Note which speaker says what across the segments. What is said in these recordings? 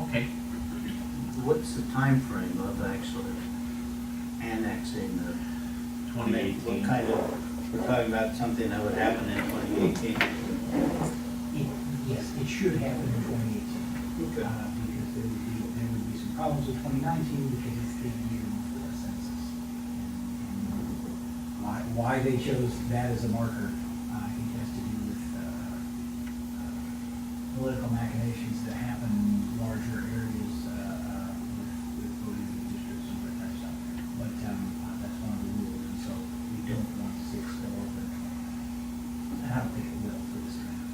Speaker 1: Okay.
Speaker 2: What's the time frame of actually annexing the? I mean, What
Speaker 1: 2018.
Speaker 2: kind of, we're talking about something that would happen in twenty eighteen.
Speaker 3: It, yes, it should happen in twenty eighteen.
Speaker 2: Okay.
Speaker 3: Because there would be, there would be some problems with twenty nineteen because it's the year for the census. And Why, why they chose that as a marker, uh, I think has to do with, uh, uh, political machinations that happen in larger areas, uh, uh, with, with voting districts and that kind of stuff. But, um, uh, that's one of the rules, and so we don't want to see it spill over. And I don't think it will for this round.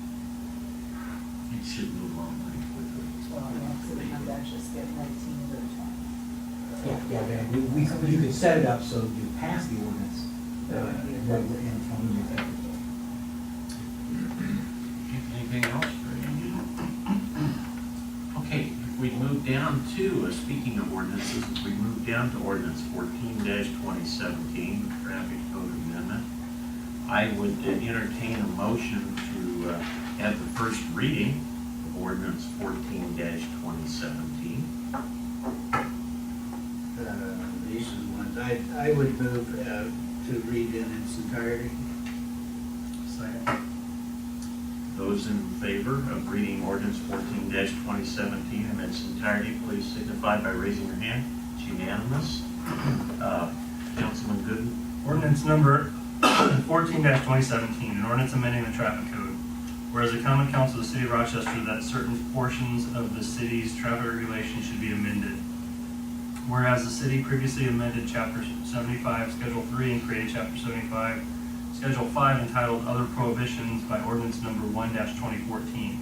Speaker 1: It should move on pretty quickly.
Speaker 4: Well, next it comes out, just get nineteen to the twenty.
Speaker 3: Yeah, yeah, yeah, we, we, you could set it up so you pass the ordinance, uh, and then we're in from the effective.
Speaker 1: Anything else? Okay, if we move down to, uh, speaking of ordinances, if we move down to ordinance fourteen twenty seventeen, traffic code amendment, I would uh, entertain a motion to uh, have the first reading of ordinance fourteen twenty seventeen.
Speaker 2: Uh, These are the ones, I, I would move uh, to read in its entirety.
Speaker 1: Those in favor of reading ordinance fourteen twenty seventeen in its entirety, please signify by raising your hand. It's unanimous. Uh, Councilman Gooden?
Speaker 5: Ordinance number fourteen twenty seventeen, an ordinance amending the traffic code. Whereas the common council of the city of Rochester that certain portions of the city's traffic regulations should be amended. Whereas the city previously amended chapter seventy-five, schedule three, and created chapter seventy-five, schedule five entitled Other Prohibitions by ordinance number one twenty fourteen.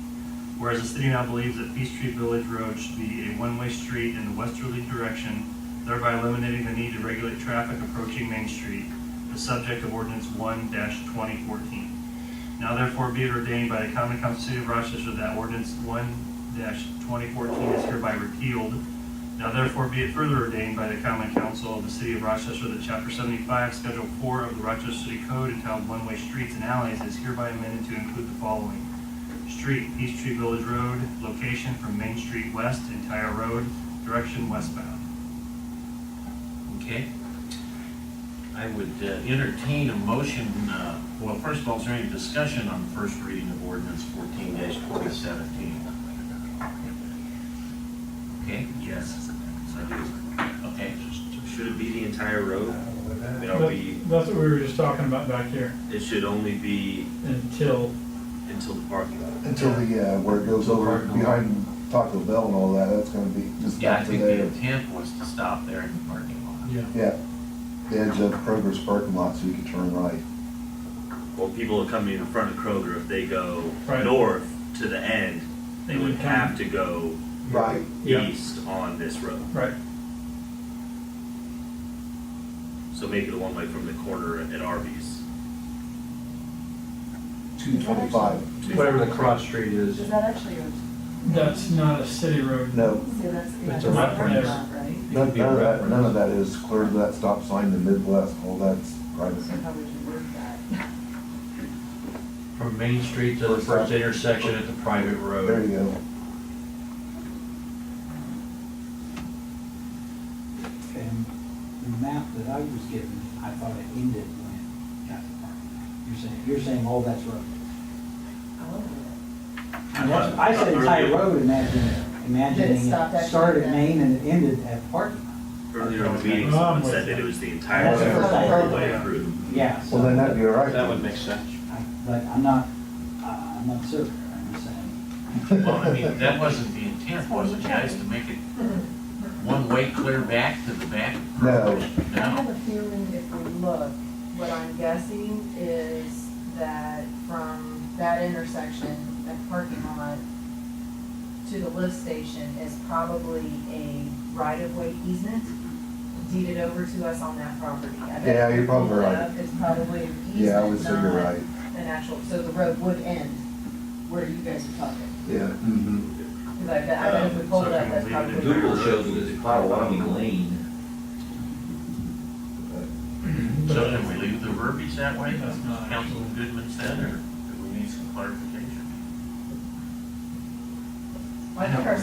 Speaker 5: Whereas the city now believes that Peace Street Village Road should be a one-way street in the westerly direction thereby eliminating the need to regulate traffic approaching Main Street, the subject of ordinance one twenty fourteen. Now therefore be it ordained by the common council of the city of Rochester that ordinance one twenty fourteen is hereby repealed. Now therefore be it further ordained by the common council of the city of Rochester that chapter seventy-five, schedule four of the Rochester City Code entitled One-Way Streets and Alleys is hereby amended to include the following. Street, East Tree Village Road, location from Main Street west, entire road, direction westbound.
Speaker 1: Okay. I would uh, entertain a motion, uh, well, first of all, is there any discussion on first reading of ordinance fourteen twenty seventeen? Okay? Yes. Okay.
Speaker 6: Should it be the entire road? You know,
Speaker 7: That-
Speaker 6: we,
Speaker 7: That's what we were just talking about back here,
Speaker 6: it should only be
Speaker 7: until,
Speaker 6: until the parking lot.
Speaker 8: Until the, uh, where it goes over behind Taco Bell and all that, that's gonna be just
Speaker 1: Yeah, I
Speaker 8: back to
Speaker 1: think the
Speaker 8: there.
Speaker 1: intent was to stop there in the parking lot.
Speaker 7: yeah.
Speaker 8: Yeah, the edge of Kroger's parking lot so you can turn right.
Speaker 6: Well, people are coming in front of Kroger, if they go
Speaker 7: Right.
Speaker 6: north to the end, they
Speaker 7: They
Speaker 6: would
Speaker 7: would come-
Speaker 6: have to go
Speaker 8: Right.
Speaker 7: Mm-hmm. Yeah.
Speaker 6: east on this road.
Speaker 7: Right,
Speaker 6: So make it a one-way from the corner at Arby's.
Speaker 8: Two twenty-five.
Speaker 6: to-
Speaker 9: Whatever the cross street is,
Speaker 4: Is that actually your,
Speaker 7: that's not a city road.
Speaker 8: No,
Speaker 4: so that's.
Speaker 9: It's
Speaker 7: a reference.
Speaker 4: Right?
Speaker 8: none none of that, none of that is clear to that stop sign in Midwest, all that's private.
Speaker 4: So how would you word that?
Speaker 9: from Main Street to the first intersection at the private
Speaker 8: There
Speaker 9: road.
Speaker 8: you go.
Speaker 3: And the map that I was given, I thought it ended when it got to the parking lot. You're saying, you're saying all that's road.
Speaker 4: I love it.
Speaker 3: And that's- I said entire road, imagining, imagining
Speaker 4: stopped
Speaker 3: it
Speaker 4: at-
Speaker 3: started at Main and it ended at the parking lot.
Speaker 6: Earlier in the
Speaker 7: Okay.
Speaker 6: meeting,
Speaker 7: Oh, I'm
Speaker 6: someone
Speaker 7: with
Speaker 6: said that
Speaker 7: you.
Speaker 6: it was the entire
Speaker 8: That's
Speaker 6: road
Speaker 8: what I
Speaker 6: all
Speaker 3: heard.
Speaker 6: the way through.
Speaker 3: Yeah. so-
Speaker 8: Well, then that'd be all right.
Speaker 9: That would make sense.
Speaker 3: I- But I'm not, uh, I'm not certain, I'm just saying.
Speaker 1: Well, I mean, that wasn't the intent, was it, guys, to make it one way clear back to the back?
Speaker 8: No.
Speaker 4: I have
Speaker 1: No?
Speaker 4: a feeling if we look, what I'm guessing is that from that intersection, that parking lot to the lift station is probably a right-of-way easement deeded over to us on that property. I bet
Speaker 8: Yeah, you're probably
Speaker 4: if we look
Speaker 8: right.
Speaker 4: up, It's probably an
Speaker 8: Yeah, I would say you're
Speaker 4: easement,
Speaker 8: right.
Speaker 4: not an actual, so the road would end where you guys are talking.
Speaker 8: Yeah, mm-hmm.
Speaker 4: Because I bet, I bet if we
Speaker 5: Um,
Speaker 4: pulled
Speaker 5: so
Speaker 4: up,
Speaker 5: can
Speaker 4: that's
Speaker 5: we leave it
Speaker 4: probably.
Speaker 5: at
Speaker 9: Google shows it as Potawatomi Lane.
Speaker 1: So can we leave the verbiage that way,
Speaker 7: That's not-
Speaker 1: Councilman Goodman said, or do we need some clarification?
Speaker 4: I think our